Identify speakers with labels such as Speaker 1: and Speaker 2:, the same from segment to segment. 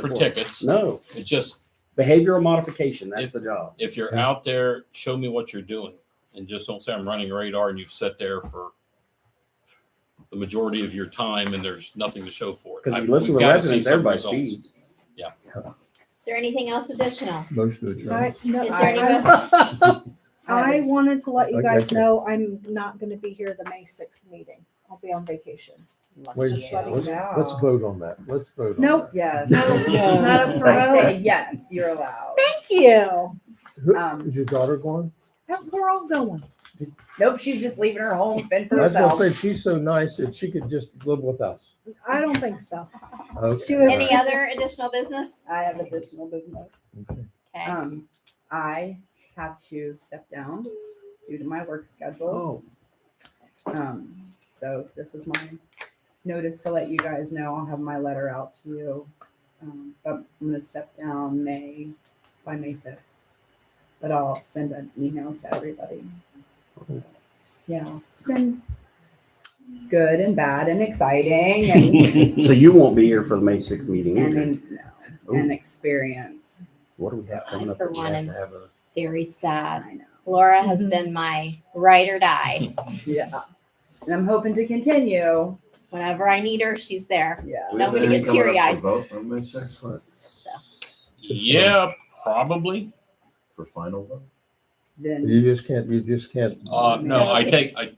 Speaker 1: for
Speaker 2: for.
Speaker 1: tickets.
Speaker 2: No,
Speaker 1: It's just
Speaker 2: behavioral modification. That's
Speaker 1: If-
Speaker 2: the job.
Speaker 1: if you're
Speaker 3: Yeah.
Speaker 1: out there, show me what you're doing, and just don't say I'm running radar and you've sat there for the majority of your time and there's nothing to show for it.
Speaker 2: Because
Speaker 1: I-
Speaker 2: you listen to
Speaker 1: we've
Speaker 2: the
Speaker 1: gotta see
Speaker 2: residents,
Speaker 1: some
Speaker 2: everybody
Speaker 1: results.
Speaker 2: speeds.
Speaker 4: Is there anything else additional?
Speaker 3: Motion to adjourn.
Speaker 5: I, no,
Speaker 4: Is there any
Speaker 5: I,
Speaker 4: vote?
Speaker 5: I I wanted to let you
Speaker 3: Okay,
Speaker 5: guys
Speaker 3: okay.
Speaker 5: know I'm not gonna be here the May sixth meeting. I'll be on vacation.
Speaker 3: Wait a
Speaker 5: Just
Speaker 3: second.
Speaker 5: letting
Speaker 3: Let's,
Speaker 5: you know.
Speaker 3: let's vote on that. Let's vote on
Speaker 5: Nope.
Speaker 3: that.
Speaker 6: Yes.
Speaker 2: Yeah.
Speaker 5: Not up for
Speaker 6: I say
Speaker 5: vote.
Speaker 6: yes, you're allowed.
Speaker 5: Thank you.
Speaker 3: Who-
Speaker 6: Um,
Speaker 3: Is your daughter going?
Speaker 5: We're all going.
Speaker 6: Nope, she's just leaving her home, fend
Speaker 3: I
Speaker 6: for
Speaker 3: was gonna
Speaker 6: herself.
Speaker 3: say, she's so nice that she could just live with us.
Speaker 5: I don't think so.
Speaker 3: Okay.
Speaker 5: She would-
Speaker 4: Any other additional business?
Speaker 6: I have additional business.
Speaker 3: Okay.
Speaker 4: Okay.
Speaker 6: Um, I have to step down due to my work schedule.
Speaker 2: Oh,
Speaker 6: Um, so this is my notice to let you guys know. I'll have my letter out to you. Um, but I'm gonna step down May, by May fifth. But I'll send an email to everybody. Yeah, it's been good and bad and exciting and,
Speaker 2: so you won't be here for the May sixth meeting
Speaker 6: and,
Speaker 2: either.
Speaker 6: an- an experience.
Speaker 2: What do we have coming
Speaker 4: I,
Speaker 2: up?
Speaker 4: for
Speaker 2: that we
Speaker 4: one,
Speaker 2: have
Speaker 4: am
Speaker 2: to have a-
Speaker 4: Very sad.
Speaker 6: I know.
Speaker 4: Laura has
Speaker 5: Mhm.
Speaker 4: been my ride or die.
Speaker 6: Yeah. And I'm hoping to continue.
Speaker 4: Whenever I need her, she's there.
Speaker 6: Yeah.
Speaker 7: Do we have
Speaker 4: Nobody
Speaker 7: anything
Speaker 4: gets
Speaker 7: coming up for
Speaker 4: teary-eyed.
Speaker 7: vote on May 6th
Speaker 1: Yeah, probably.
Speaker 7: for final vote?
Speaker 6: Then
Speaker 3: You just can't, you just can't.
Speaker 1: Uh, no, I
Speaker 4: So-
Speaker 1: take, I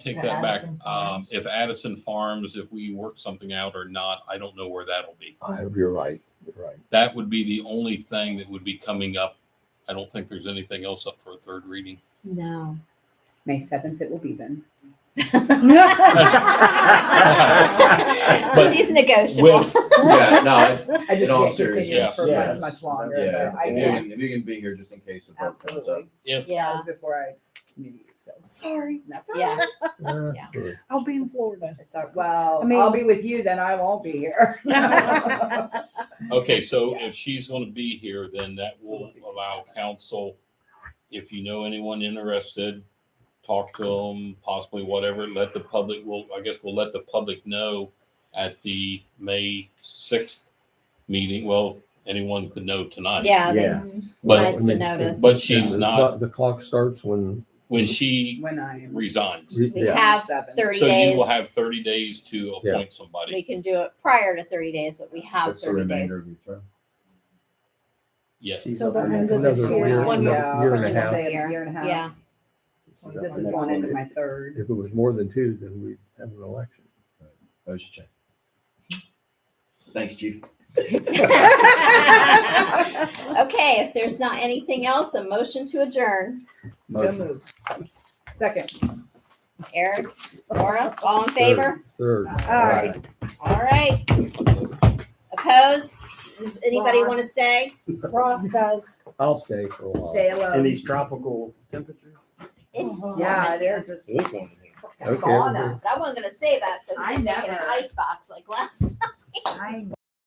Speaker 1: take that back.
Speaker 4: Addison Farms.
Speaker 1: Um, if Addison Farms, if we work something out or not, I don't know where that'll be.
Speaker 3: I- Oh, You're right, you're right.
Speaker 1: That would be the only thing that would be coming up. I don't think there's anything else up for a third reading.
Speaker 4: No.
Speaker 6: May seventh it will be then.
Speaker 4: she's negotiable.
Speaker 1: With-
Speaker 7: Yeah, no,
Speaker 6: I just
Speaker 7: all seriousness,
Speaker 6: can't continue it for
Speaker 2: yes.
Speaker 6: much longer.
Speaker 7: yeah.
Speaker 6: but I
Speaker 7: If you
Speaker 6: can
Speaker 7: can- If you can be here just in case. the vote comes up.
Speaker 6: absolutely.
Speaker 1: If,
Speaker 6: That
Speaker 4: yeah.
Speaker 6: was before I knew you, so
Speaker 5: Sorry,
Speaker 6: that's all
Speaker 4: Yeah.
Speaker 6: right.
Speaker 3: Yeah,
Speaker 4: Yeah.
Speaker 3: good.
Speaker 5: I'll be in Florida.
Speaker 6: It's all, well,
Speaker 5: I mean-
Speaker 6: I'll be with you, then I won't be here.
Speaker 1: okay, so if she's gonna be here, then that will allow council, if you know anyone interested, talk to them, possibly whatever, let the public, well, I guess we'll let the public know at the May sixth meeting. Well, anyone could know tonight.
Speaker 4: Yeah. they-
Speaker 2: Yeah.
Speaker 1: But
Speaker 4: That's the notice.
Speaker 1: But she's
Speaker 3: The
Speaker 1: not-
Speaker 3: clock- The clock starts when,
Speaker 1: when she
Speaker 6: When I am.
Speaker 1: resigns,
Speaker 3: re-
Speaker 4: We
Speaker 3: yeah,
Speaker 4: have
Speaker 6: Seven.
Speaker 4: 30
Speaker 1: so
Speaker 4: days.
Speaker 1: you will have thirty days to
Speaker 3: Yeah.
Speaker 1: appoint somebody.
Speaker 4: we can do it prior to 30 days, but we have
Speaker 7: That's the
Speaker 4: 30
Speaker 7: remainder of
Speaker 4: days.
Speaker 7: your term.
Speaker 1: Yeah.
Speaker 2: She's
Speaker 5: Till
Speaker 2: up
Speaker 5: the
Speaker 2: on
Speaker 5: end
Speaker 2: that-
Speaker 5: of this
Speaker 3: another
Speaker 5: year.
Speaker 3: year,
Speaker 4: One
Speaker 3: another
Speaker 6: more.
Speaker 3: year and
Speaker 6: Like
Speaker 3: a
Speaker 6: I
Speaker 3: half.
Speaker 6: say, a year and a half.
Speaker 4: Yeah.
Speaker 2: She's up
Speaker 6: This
Speaker 2: on
Speaker 6: is
Speaker 2: next
Speaker 6: going into
Speaker 2: one.
Speaker 6: my third.
Speaker 3: If it was more than two, then we'd have an election.
Speaker 7: I was just checking. Thanks, chief.
Speaker 4: okay, if there's not anything else, a motion to adjourn.
Speaker 6: So
Speaker 2: Motion.
Speaker 6: moved. Second.
Speaker 4: Eric, Laura, all in favor?
Speaker 3: Third.
Speaker 5: Aye.
Speaker 4: All right. Opposed? Does anybody
Speaker 5: Ross.
Speaker 4: want to stay?
Speaker 5: Ross does.
Speaker 3: I'll stay for a while.
Speaker 6: Stay alone.
Speaker 2: In these tropical temperatures.
Speaker 4: It's
Speaker 6: Yeah,
Speaker 4: warm
Speaker 6: it
Speaker 4: in
Speaker 6: is.
Speaker 4: here.
Speaker 6: It's
Speaker 3: Okay,
Speaker 6: sauna.
Speaker 3: everybody.
Speaker 4: But I wasn't going to say that, so
Speaker 6: I
Speaker 4: I'm making an
Speaker 6: never-
Speaker 4: ice box like last.
Speaker 6: I